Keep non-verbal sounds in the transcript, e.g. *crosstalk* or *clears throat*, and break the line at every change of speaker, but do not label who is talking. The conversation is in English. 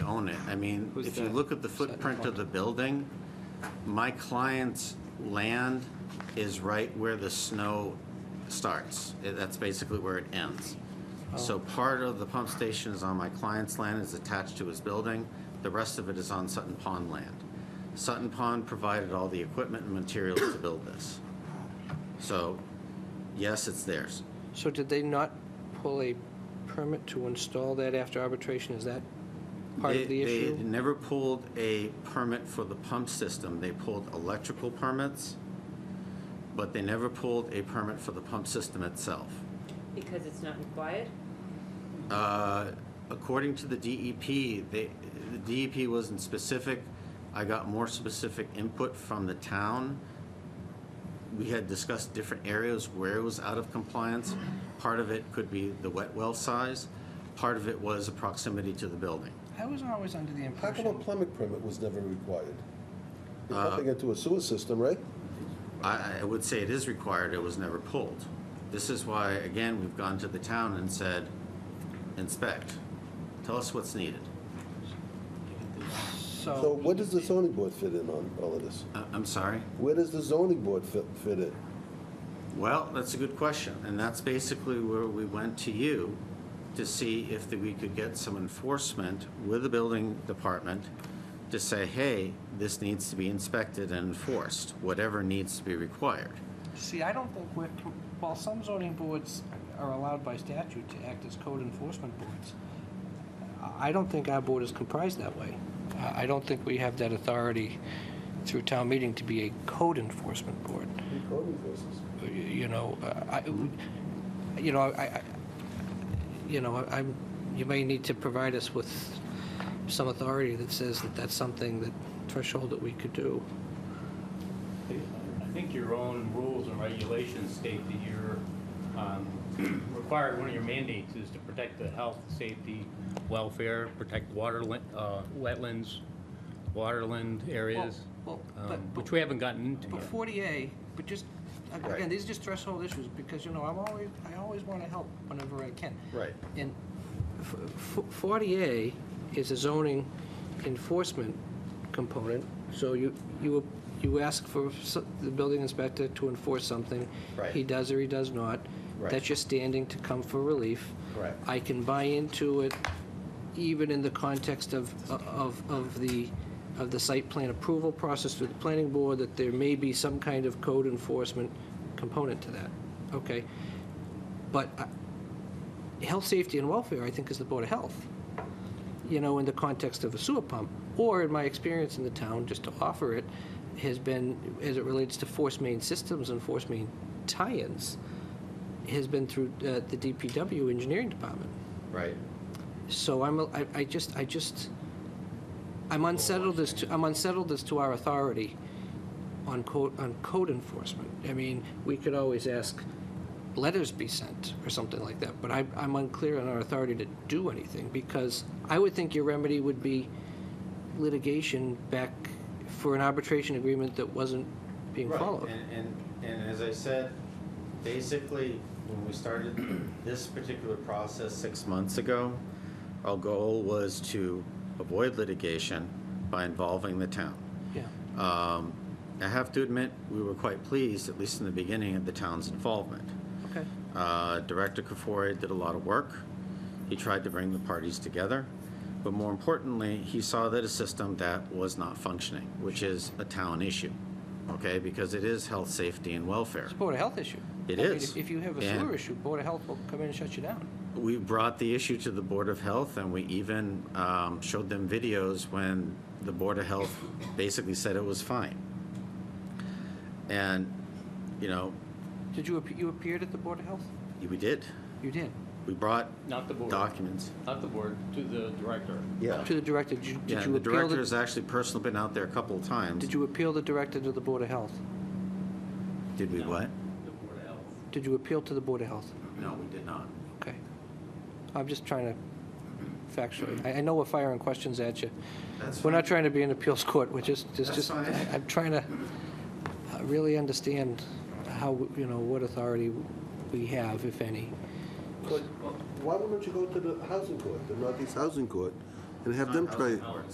I mean,
Who's
if you
the
look at the footprint of the building, my client's land is right where the snow starts. Eh, That's basically where it ends.
Oh.
So part of the pump station is on my client's land, is attached to his building. The rest of it is on Sutton Pond land. Sutton Pond provided all the equipment and materials to build this. So, yes, it's theirs.
So did they not pull a permit to install that after arbitration? Is that part
They-
of the
They
issue?
had never pulled a permit for the pump system. They pulled electrical permits, but they never pulled a permit for the pump system itself.
Because it's not required?
Uh, According to the DEP, they, the DEP wasn't specific. I got more specific input from the town. We had discussed different areas where it was out of compliance. Part of it could be the wet well size. Part of it was a proximity to the building.
I was always under the
How come a
impression,
plumbing permit was never required? You're pumping into a sewer system, right?
I, I would say it is required, it was never pulled. This is why, again, we've gone to the town and said, inspect, tell us what's needed.
So
so,
where does the zoning board fit in on all of this?
I- Uh, I'm sorry?
Where does the zoning board fit, fit in?
Well, that's a good question, and that's basically where we went to you to see if that we could get some enforcement with the building department to say, hey, this needs to be inspected and enforced, whatever needs to be required.
see, I don't think we're, while some zoning boards are allowed by statute to act as code enforcement boards, I- I don't think our board is comprised that way. I I don't think we have that authority through town meeting to be a code enforcement board.
Code enforcement.
you know, I, you know, I, I- you know, I'm, you may need to provide us with some authority that says that that's something that threshold that we could do.
I think your own rules and regulations state that you're um, *clears throat* required, one of your mandates is to protect the health, safety, welfare, protect water, lin- uh, wetlands, waterland areas,
Well,
um,
but, but
which we haven't gotten into
but
yet.
40A, but just, again,
Right.
these are just threshold issues, because, you know, I'm always, I always want to help whenever I can.
Right.
And f- f- 40A is a zoning enforcement component, so you, you, you ask for s- the building inspector to enforce something.
Right.
He does or he does not.
Right.
That's your standing to come for relief.
Correct.
I can buy into it even in the context of, of, of the, of the site plan approval process through the planning board, that there may be some kind of code enforcement component to that. Okay. But I- health, safety, and welfare, I think, is the Board of Health, you know, in the context of a sewer pump. Or, in my experience in the town, just to offer it, has been, as it relates to force main systems and force main tie-ins, has been through uh, the DPW Engineering Department.
Right.
So I'm, a- I, I just, I just, I'm unsettled as to, I'm unsettled as to our authority on code, on code enforcement. I mean, we could always ask letters be sent or something like that, but I, I'm unclear on our authority to do anything because I would think your remedy would be litigation back for an arbitration agreement that wasn't being
Right,
followed.
And, and, and as I said, basically, when we started this particular process six months ago, our goal was to avoid litigation by involving the town.
Yeah,
Um, I have to admit, we were quite pleased, at least in the beginning, of the town's involvement.
okay.
Uh, Director Kafori did a lot of work. He tried to bring the parties together. But more importantly, he saw that a system that was not functioning, which is a town issue, okay? Because it is health, safety, and welfare.
It's a Board of Health issue.
It
I mean,
is.
if- If you have a
And-
sewer issue, Board of Health will come in and shut you down.
We brought the issue to the Board of Health, and we even um, showed them videos when the Board of Health basically said it was fine. And, you know,
Did you, appe- you appeared at the Board of Health?
we did.
You did.
We brought
Not the board,
documents.
not the board, to the director.
Yeah.
To the director, did you
Yeah,
did you
the
appeal,
director has
the-
actually personally been out there a couple of times.
did you appeal the director to the Board of Health?
Did we
No.
what?
The board of health.
Did you appeal to the Board of Health?
No, we did not.
Okay. I'm just trying to factually, I I know we're firing questions at you.
That's
We're
fine.
not trying to be an appeals court, we're just,
That's
just, just-
fine.
I- I'm trying to uh, really understand how, you know, what authority we have, if any.
But why wouldn't you go to the housing court, the Northeast Housing Court, and have them try?